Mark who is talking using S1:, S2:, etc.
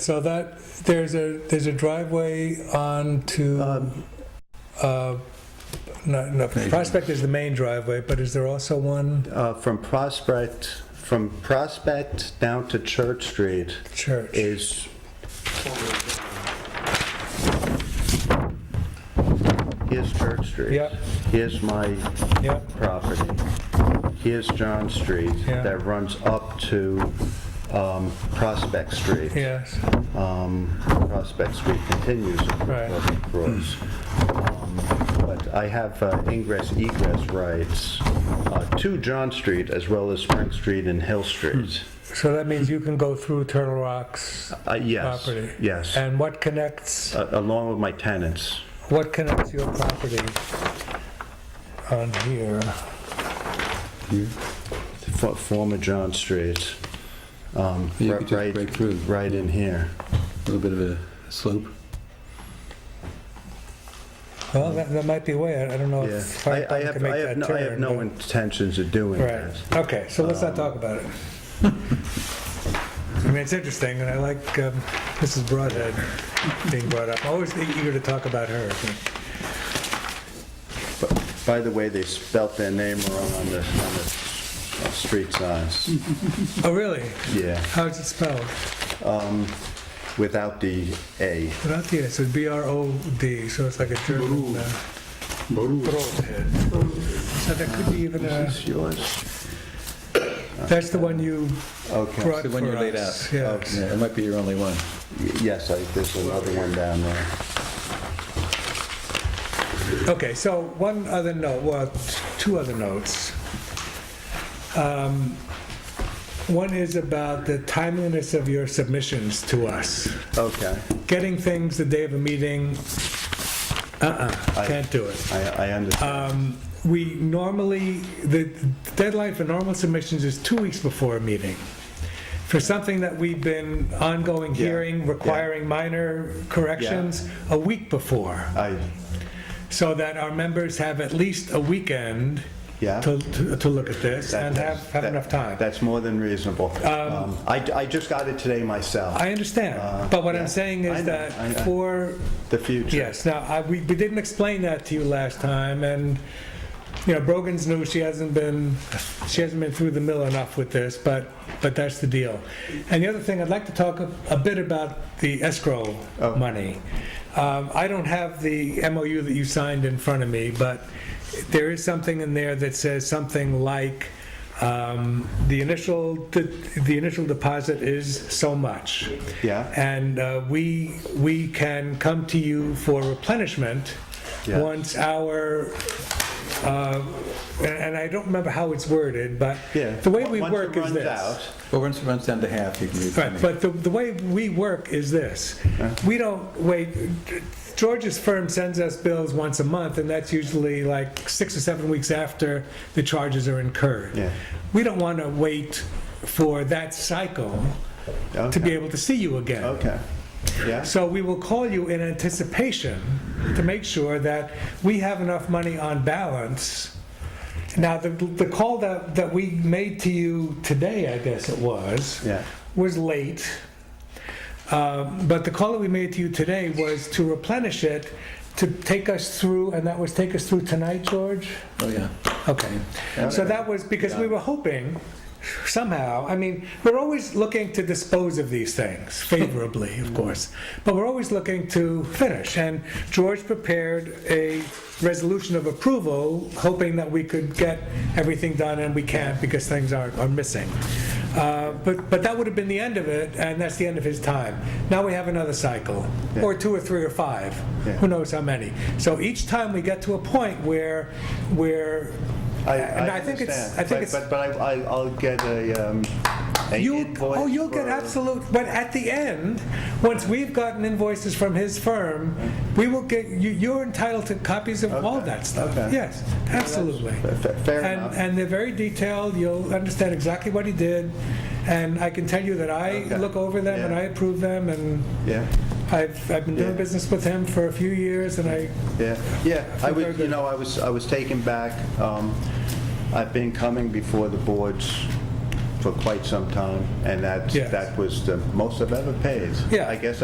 S1: So that, there's a, there's a driveway onto,
S2: Um,
S1: uh, no, no, Prospect is the main driveway, but is there also one
S2: uh, From Prospect, from Prospect down to Church Street
S1: church?
S2: is, here's Church Street.
S1: Yep.
S2: Here's my
S1: Yep,
S2: property. Here's John Street
S1: Yeah.
S2: that runs up to um, Prospect Street.
S1: yes,
S2: um, Prospect Street continues
S1: Right.
S2: across. um, But I have uh, ingress egress rights uh, to John Street as well as Spring Street and Hill Street.
S1: so that means you can go through Turtle Rock's
S2: Uh, Yes,
S1: property?
S2: yes,
S1: And what connects,
S2: a- along with my tenants.
S1: what connects your property on here?
S2: Fo- Former John Street, um,
S3: You
S2: ri-
S3: could just break
S2: right,
S3: through,
S2: right in here.
S3: a little bit of a slope.
S1: Well, that, that might be a way, I I don't know
S2: Yeah,
S1: if
S2: I I
S1: Firethorn
S2: have,
S1: can
S2: I
S1: make
S2: have
S1: that
S2: no-
S1: turn.
S2: I have no
S1: but-
S2: intentions of doing
S1: Right,
S2: that.
S1: okay, so let's not talk about it. I mean, it's interesting, and I like um, Mrs. Broadhead being brought up. I'm always eager to talk about her.
S2: But By the way, they spelt their name wrong on the, on the street signs.
S1: Oh, really?
S2: Yeah,
S1: How's it spelled?
S2: without the A.
S1: Without the S, it's B-R-O-D, so it's like a German. uh, Broadhead. So that could be even a,
S2: Is yours?
S1: that's the one you
S2: Okay,
S1: brought for us.
S3: the one you laid out.
S1: Yes.
S3: Yeah, it might be your only one.
S2: yes, I- there's another one down there.
S1: Okay, so one other note, well, t- two other notes. Um, One is about the timeliness of your submissions to us.
S2: Okay,
S1: Getting things the day of a meeting, uh-uh,
S2: I-
S1: can't do it.
S2: I, I understand.
S1: Um, We normally, the deadline for normal submissions is two weeks before a meeting. For something that we've been ongoing
S2: Yeah,
S1: hearing,
S2: yeah.
S1: requiring minor corrections, a week before
S2: I,
S1: so that our members have at least a weekend
S2: Yeah.
S1: to, to to look at this
S2: that-
S1: and have, have
S2: that-
S1: enough time.
S2: That's more than reasonable. Um, I, I just got it today myself,
S1: I understand,
S2: Uh,
S1: but what I'm
S2: yeah.
S1: saying
S2: I
S1: is
S2: know, I-
S1: that
S2: I-
S1: for,
S2: the future.
S1: yes, now, I, we we didn't explain that to you last time, and, you know, Brogan's new, she hasn't been, she hasn't been through the mill enough with this, but, but that's the deal. And the other thing, I'd like to talk a a bit about the escrow
S2: Oh.
S1: money. Um, I don't have the MOU that you signed in front of me, but there is something in there that says something like, um, the initial, the the initial deposit is so much.
S2: Yeah.
S1: And uh, we, we can come to you for replenishment
S2: Yeah.
S1: once our, uh, and and I don't remember how it's worded, but
S2: Yeah.
S1: the way we
S2: Once it
S1: work is
S2: runs
S1: this.
S2: out,
S3: But once it runs down to half, you can do
S1: Right,
S3: it.
S1: but the, the way we work is this.
S2: Uh-huh.
S1: We don't wait, George's firm sends us bills once a month, and that's usually like six or seven weeks after the charges are incurred.
S2: Yeah.
S1: We don't want to wait for that cycle to be
S2: Okay,
S1: able to see you again.
S2: okay, yeah,
S1: So we will call you in anticipation to make sure that we have enough money on balance. Now, the, the call that, that we made to you today, I guess it was,
S2: yeah,
S1: was late. Um, But the call that we made to you today was to replenish it, to take us through, and that was take us through tonight, George?
S3: Oh, yeah.
S1: Okay. So that was because we were hoping somehow, I mean, we're always looking to dispose of these things favorably, of course, but we're always looking to finish. And George prepared a resolution of approval, hoping that we could get everything done, and we can't because things are, are missing. Uh, But, but that would have been the end of it, and that's the end of his time. Now we have another cycle, or two or three or five,
S2: Yeah.
S1: who knows how many. So each time we get to a point where, where
S2: I,
S1: and
S2: I
S1: I think it's,
S2: understand.
S1: I think
S2: But-
S1: it's,
S2: But, but I, I- I'll get a, um, a
S1: you,
S2: invoice
S1: oh, you'll get
S2: for-
S1: absolute, but at the end, once we've gotten invoices from his firm, we will get, you, you're entitled to copies of all that stuff.
S2: okay.
S1: Yes, absolutely.
S2: Fa- Fair
S1: And,
S2: enough.
S1: and they're very detailed, you'll understand exactly what he did, and I can tell you that I
S2: Okay.
S1: look over them and
S2: Yeah.
S1: I approve them, and
S2: Yeah.
S1: I've, I've been doing
S2: Yeah.
S1: business with him for a few years, and I,
S2: Yeah, yeah, I
S1: very
S2: was, you
S1: good.
S2: know, I was, I was taken back. Um, I've been coming before the boards for quite some time, and that's,
S1: Yes.
S2: that was the most I've ever paid.
S1: Yeah.
S2: I guess